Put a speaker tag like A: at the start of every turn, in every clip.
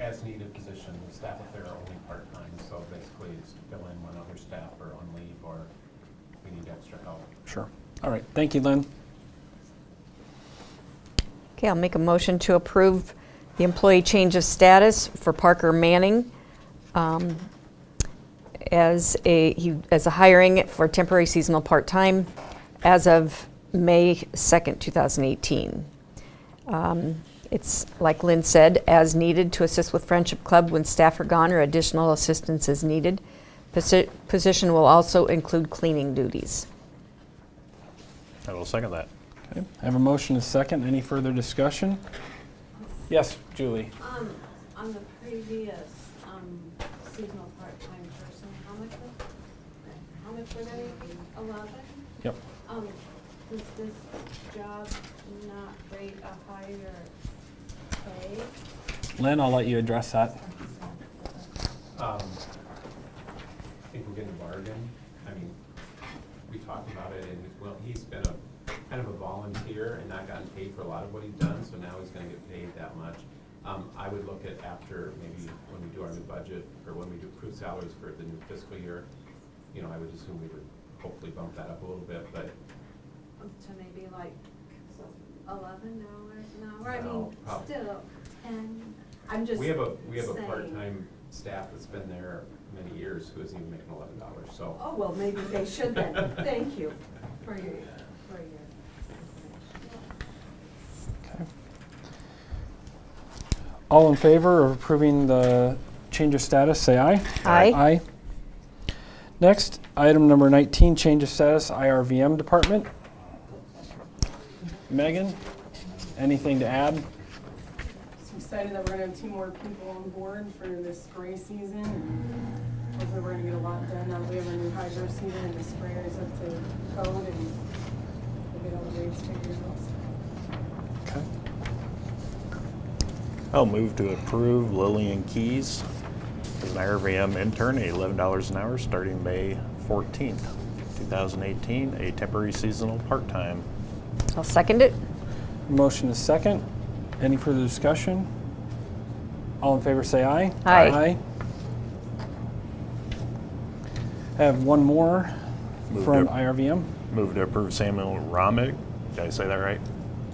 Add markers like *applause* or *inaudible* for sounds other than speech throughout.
A: as-needed position. The staff up there are only part-time, so basically it's to fill in when other staff are on leave or we need extra help.
B: Sure. All right. Thank you, Lynn.
C: Okay, I'll make a motion to approve the employee change of status for Parker Manning um, as a, he, as a hiring for temporary seasonal part-time as of May 2nd, 2018. Um, It's, like Lynn said, as needed to assist with Friendship Club when staff are gone or additional assistance is needed. Posi- Position will also include cleaning duties.
D: I will second that.
B: Okay. I have a motion and a second. Any further discussion? Yes, Julie.
E: Um, on the previous, um, seasonal part-time person, how much was, how much were they, eleven?
B: Yep.
E: Um, does this job not rate a higher pay?
B: Lynn, I'll let you address that.
A: Um, I think we're getting a bargain. I mean, we talked about it and, well, he's been a, kind of a volunteer and not gotten paid for a lot of what he's done, so now he's gonna get paid that much. Um, I would look at after, maybe when we do our new budget, or when we do approved salaries for the new fiscal year, you know, I would assume we would hopefully bump that up a little bit, but
E: Um, To maybe like eleven dollars an hour, I
A: No,
E: mean,
A: prob-
E: still ten, I'm just
A: we have a, we have a
E: saying.
A: part-time staff that's been there many years who isn't even making eleven dollars, so.
E: Oh, well, maybe they should then,
A: *laughs*
E: thank you for your, for your information.
B: Okay. All in favor of approving the change of status, say aye.
C: Aye.
B: Aye. Next, item number 19, change of status, IRVM department. Megan, anything to add?
F: Just excited that we're gonna have two more people on board for this spray season. and Hopefully, we're gonna get a lot done now that we have our new hydro season and the sprayer is up to code and we'll get all the rates figured out.
B: Okay.
D: I'll move to approve Lillian Keys as an IRVM intern at eleven dollars an hour starting May fourteenth, two thousand eighteen, a temporary seasonal part-time.
C: I'll second it.
B: Motion is second. Any further discussion? All in favor, say aye.
C: Aye.
B: Aye. I have one more
D: Move
B: from
D: to-
B: IRVM.
D: Move to approve Samuel Romig, did I say that right?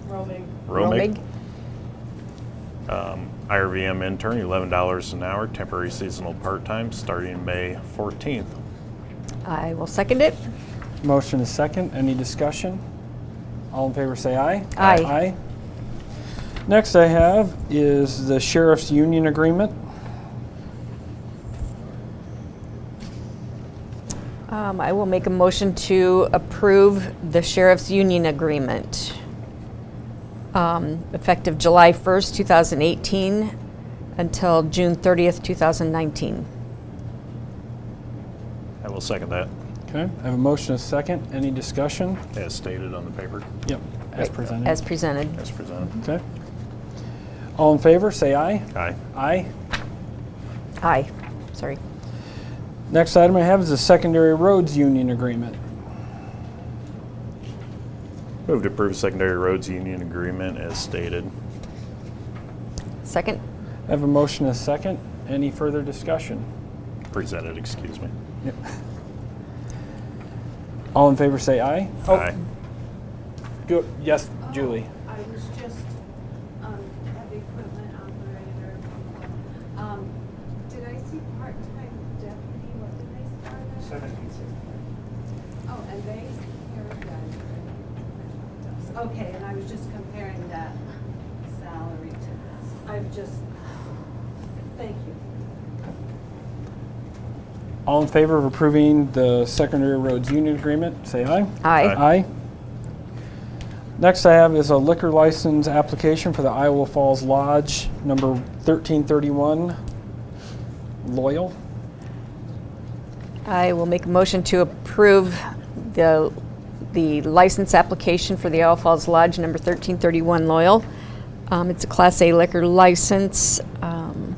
F: Roaming.
C: Romig.
D: Um, IRVM intern, eleven dollars an hour, temporary seasonal part-time, starting May fourteenth.
C: I will second it.
B: Motion is second. Any discussion? All in favor, say aye.
C: Aye.
B: Aye. Next I have is the sheriff's union agreement.
C: Um, I will make a motion to approve the sheriff's union agreement. um, Effective July 1st, 2018 until June 30th, 2019.
D: I will second that,
B: Okay, I have a motion is second. Any discussion?
D: as stated on the paper,
B: Yep, as
C: Right, As
B: presented.
C: presented.
D: as presented.
B: Okay. All in favor, say aye.
D: Aye.
B: Aye.
C: Aye, sorry.
B: Next item I have is the secondary roads union agreement.
D: Move to approve secondary roads union agreement as stated.
C: Second?
B: I have a motion and a second. Any further discussion?
D: Presented, excuse me.
B: All in favor say aye.
D: Aye.
B: Go, Oh, yes, Julie.
E: Oh, I was just, um, heavy equipment operator. Um, did I see part-time deputy, what did they start at? Seventeen sixty. Oh, and they, here we go. Okay, and I was just comparing that salary to this. I've just, thank you.
B: All in favor of approving the secondary roads union agreement, say aye.
C: Aye.
B: Aye. Next I have is a liquor license application for the Iowa Falls Lodge, number 1331, Loyal.
C: I will make a motion to approve the, the license application for the Owl Falls Lodge, number 1331 Loyal. Um, It's a Class A liquor license, um,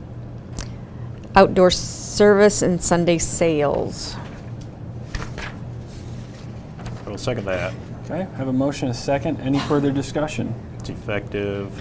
C: outdoor service and Sunday sales.
D: I will second that.
B: Okay, I have a motion and a second. Any further discussion?
D: It's effective